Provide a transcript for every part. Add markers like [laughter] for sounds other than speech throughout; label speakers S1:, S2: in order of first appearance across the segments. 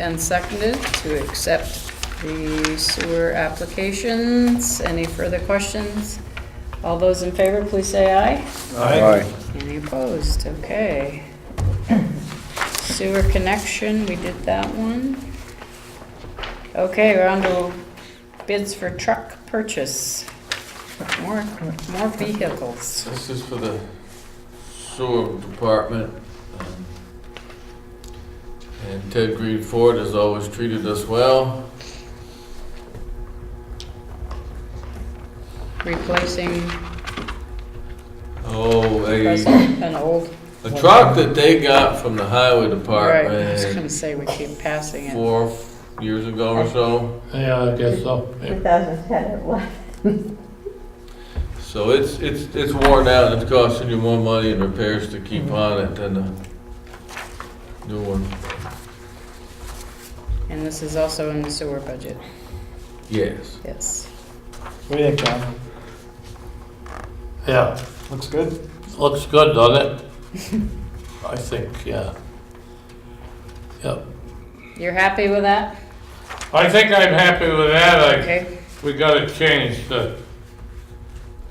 S1: and seconded to accept the sewer applications. Any further questions? All those in favor, please say aye.
S2: Aye.
S1: Any opposed? Okay. Sewer connection, we did that one. Okay, we're on to bids for truck purchase. More, more vehicles.
S3: This is for the sewer department. um, And Ted Green Ford has always treated us well.
S1: Replacing
S3: Oh, a,
S1: present and old.
S3: a truck that they got from the highway
S1: Right, I was
S3: department
S1: gonna say, we keep passing it.
S3: four years ago or so.
S2: Yeah, I guess so.
S4: 2010 it was.
S3: So it's, it's, it's worn out and it's costing you more money in repairs to
S1: Mm-hmm.
S3: keep on it than the new one.
S1: And this is also in the sewer budget,
S3: Yes.
S1: yes.
S5: What do you think, John?
S2: Yeah,
S5: Looks good?
S2: looks
S1: [laughs]
S2: good, doesn't it? I think, yeah. Yep.
S1: You're happy with that?
S2: I think I'm happy with that. I,
S1: Okay.
S2: we gotta change the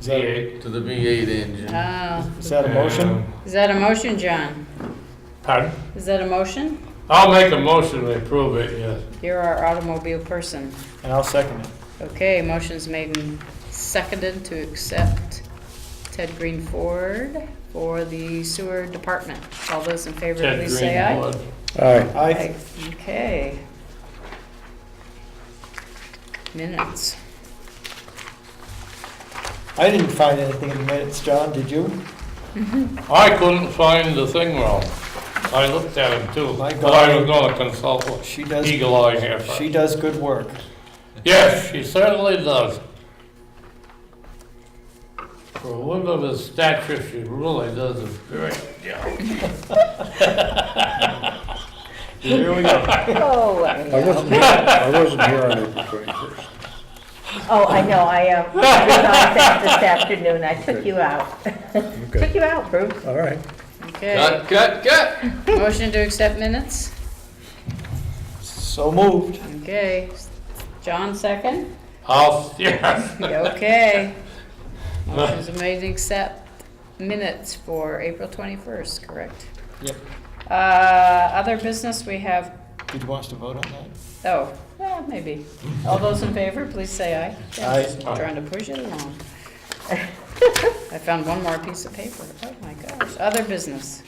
S5: Is that,
S2: V8.
S3: To the B eight engine.
S1: Ah,
S5: is that a motion?
S2: and-
S1: is that a motion, John?
S2: Pardon?
S1: Is that a motion?
S2: I'll make a motion to approve it, yes.
S1: You're our automobile person.
S5: And I'll second it.
S1: Okay, motion's made and seconded to accept Ted Green Ford for the sewer department. All those in favor,
S2: Ted
S1: please say
S2: Green
S1: aye.
S2: would.
S5: Aye.
S1: Okay. Minutes.
S5: I didn't find anything in the minutes, John, did you?
S2: I couldn't find the thing wrong. I looked at him too,
S5: My
S2: but I was
S5: God.
S2: gonna consult with
S5: She does,
S2: Eagle Eye here.
S5: she does good work.
S2: Yes, she certainly does. For a woman of her stature, she really does a great job.
S5: Here we go.
S4: Oh,
S6: I
S4: I-
S6: wasn't here, I wasn't here on April twenty-first.
S4: oh, I know, I uh, resolved that this afternoon, I took you out. [laughs] Took
S6: Okay,
S4: you out, Bruce.
S6: all right.
S1: Okay,
S3: Cut, cut, cut!
S1: motion to accept minutes?
S5: So moved.
S1: Okay. John, second?
S2: I'll, [laughs] yes,
S5: [laughs]
S1: Okay. Motion's made and accept minutes for April 21st, correct?
S5: Yep.
S1: Uh, Other business, we have
S5: Did you want us to vote on that?
S1: Oh, yeah, maybe. All those in favor, please say aye. Yeah,
S5: Aye.
S1: just Trying to push it along. [laughs] I found one more piece of paper. Oh, my gosh. Other business.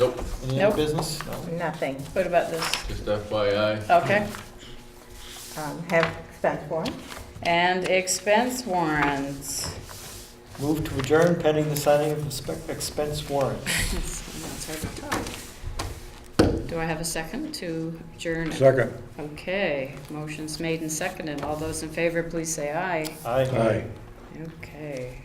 S3: Nope,
S5: Any
S1: Nope.
S5: other business? No.
S4: Nothing.
S1: What about this?
S3: just FYI.
S1: Okay.
S4: Um, Have expense warrant.
S1: And expense warrants.
S5: Move to adjourn pending the signing of the spe- expense warrant.
S1: That's- that's hard to talk. Do I have a second to adjourn? it?
S6: Second,
S1: Okay, motion's made and seconded. All those in favor, please say aye.
S5: Aye.
S6: aye.
S1: Okay.